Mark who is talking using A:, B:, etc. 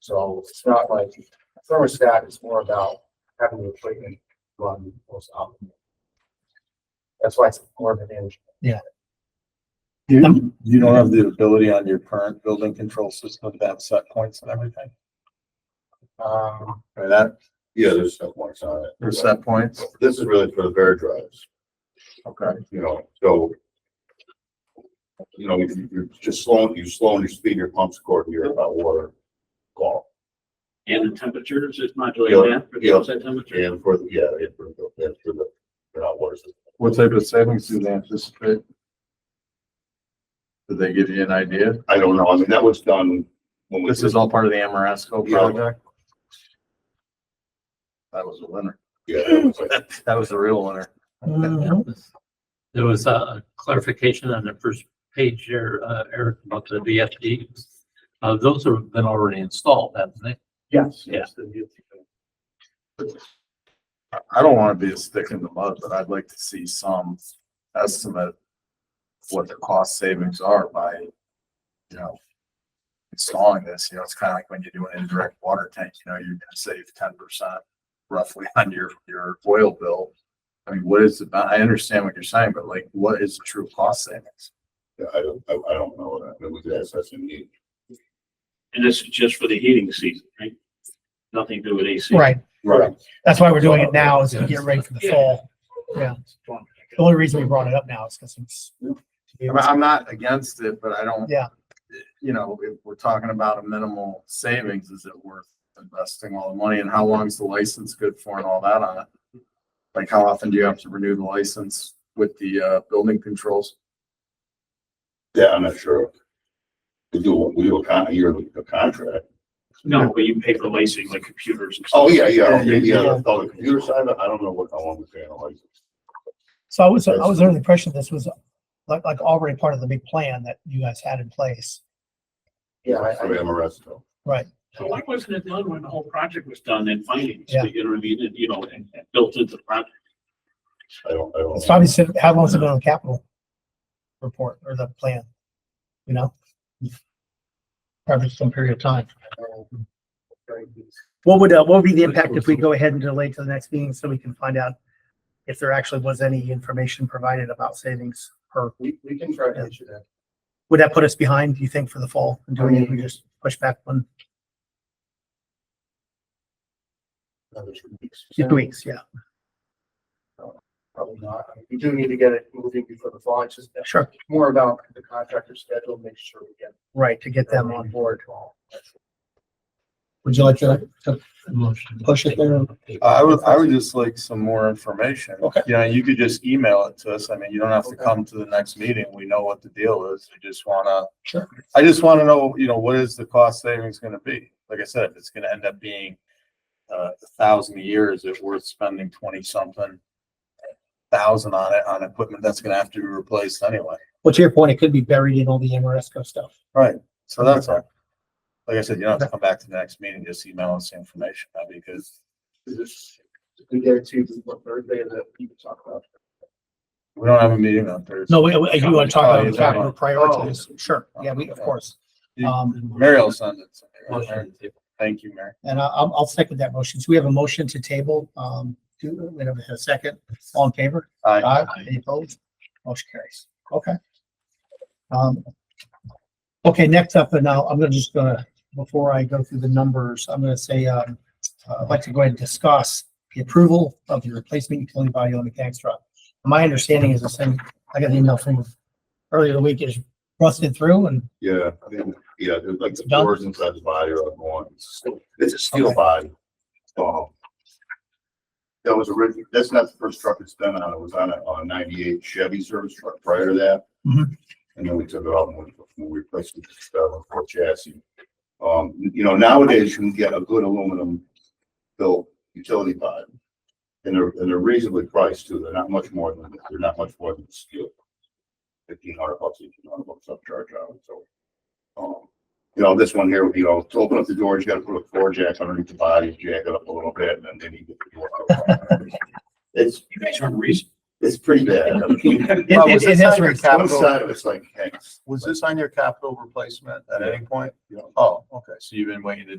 A: So it's not like thermostat is more about having the equipment run most optimal. That's why it's more of an engine.
B: You, you don't have the ability on your current building control system to have set points and everything,
A: Um,
B: or that,
C: Yeah, there's set points on it.
B: or set points?
C: This is really for the bear drives,
B: Okay.
C: you know, so. You know, you- you're just slowing, you slowing your speed, your pumps according to your hot water call.
D: And the temperatures, it's modulating that for the
C: Yeah.
D: outside temperature.
C: And for, the yeah, and for the, and for the, for hot water system.
B: What type of savings do they anticipate? Did they give you an idea?
C: I don't know, I mean, that was done when we.
B: This is all part of the Amoresco
C: Yeah.
B: project? That was a winner.
C: Yeah, it was like-
B: That was a real winner.
E: Mm-hmm.
D: There was a clarification on the first page there, uh, Eric, about the VFD. Uh, those have been already installed, haven't they?
A: yes.
D: yes,
B: I- I don't want to be a stick in the mud, but I'd like to see some estimate of what the cost savings are by, you know, installing this, you know, it's kind of like when you do an indirect water tank, you know, you're gonna save ten percent roughly on your, your oil bill. I mean, what is the, ba- I understand what you're saying, but like, what is the true cost savings?
C: Yeah, I don't, I, I don't know, that. I mean, we could ask S M E.
D: And this is just for the heating season, right? Nothing to do with AC.
E: Right.
C: Right.
E: That's why we're doing it now is to get ready for the fall. Yeah. The only reason we brought it up now is because it's.
B: I mean, I'm not against it, but I don't.
E: Yeah.
B: You know, if we're talking about a minimal savings, is it worth investing all the money and how long's the license good for and all that on it? Like, how often do you have to renew the license with the, uh, building controls?
C: Yeah, I'm not sure. We do, we do a con, a yearly a contract.
F: No, but you pay for licensing, like computers and stuff.
C: Oh, yeah, yeah,
B: Yeah,
C: okay, yeah,
E: yeah.
C: on the computer side, I don't know what, how long we pay on a license.
E: So I was, I was under the impression this was like, like already part of the big plan that you guys had in place.
A: Yeah, I,
C: For
A: I,
C: Amoresco.
F: So why wasn't it done when the whole project was done and financed?
E: Yeah.
F: You know what I mean? And, you know, and and built into the project.
C: I don't, I
E: It's
C: don't. know.
E: probably, sit- how long's it been on the capital report or the plan? You know? Probably some period of time.
A: um, very easy.
E: What would, uh, what would be the impact if we go ahead and delay to the next meeting so we can find out if there actually was any information provided about savings per
A: we, we can try to issue that.
E: Would that put us behind, do you think, for the fall? And doing it, if we just push back one,
A: another two weeks.
E: two weeks, yeah,
A: Probably not. I mean, We do need to get it moving before the fall. It's just
E: sure,
A: more about the contractor schedule, make sure we get
E: right, to get
A: them
E: them on.
A: on board.
E: Would you like to push it there?
B: Uh, I would, I would just like some more information.
E: Okay.
B: Yeah, you could just email it to us. I mean, you don't have to come to the next meeting. We know what the deal is. We just wanna
E: Sure.
B: I just want to know, you know, what is the cost savings gonna be? Like I said, if it's gonna end up being uh, a thousand a year, is it worth spending twenty something thousand on it, on equipment that's gonna have to be replaced anyway?
E: Well, to your point, it could be buried in all the Amoresco stuff.
B: Right. So that's all. Like I said, you don't have to come back to the next meeting, just email us the information, uh, that'd be good.
A: We get it to what Thursday that we can talk about.
B: We don't have a meeting on Thursday.
E: No, we, we- you want to talk
B: Oh,
E: about
B: you're
E: the capital priorities,
B: Oh.
E: sure, yeah, we, of course.
B: You-
E: Um,
B: Mary will send it. to me, right?
D: Motion to
B: Thank you, Mary.
E: and I- I'll, I'll second that motion, so we have a motion to table, um, do, we have a second, all in favor?
B: Aye.
E: Aye. Any opposed? Motion carries. Okay. Um, okay, next up, and now I'm gonna just gonna, before I go through the numbers, I'm gonna say, um, uh, I'd like to go ahead and discuss the approval of the replacement utility body on the mechanics truck. My understanding is the same, I got an email from earlier the week is rusted through and
C: Yeah, I think- yeah, there's like the
E: Done.
C: doors inside the body are going, it's a steel
E: Okay.
C: body. Um, That was originally, that's not the first truck it's been on, it was on a, on a ninety-eight Chevy service truck prior to that.
E: Mhm.
C: And then we took it out and we we replaced it with a Ford chassis. Um, you know, nowadays you can get a good aluminum built utility body. And they're, and they're reasonably priced too, they're not much more than, they're not much more than steel. Fifteen hundred bucks, eighteen hundred bucks up charge out, so. Um, you know, this one here, you know, to open up the doors, you gotta put a floor jack underneath the body, jack it up a little bit, and then then you get the door. out. It's,
F: You guys aren't reasonable.
C: it's pretty
E: It-
C: bad.
B: Well, was
E: it- it
B: this
E: has
B: on your
E: rates.
C: One
B: capital-
C: side of it's like, hey,
B: Was this on your capital replacement at any point?
C: you know,
B: Oh, okay, so you've been waiting to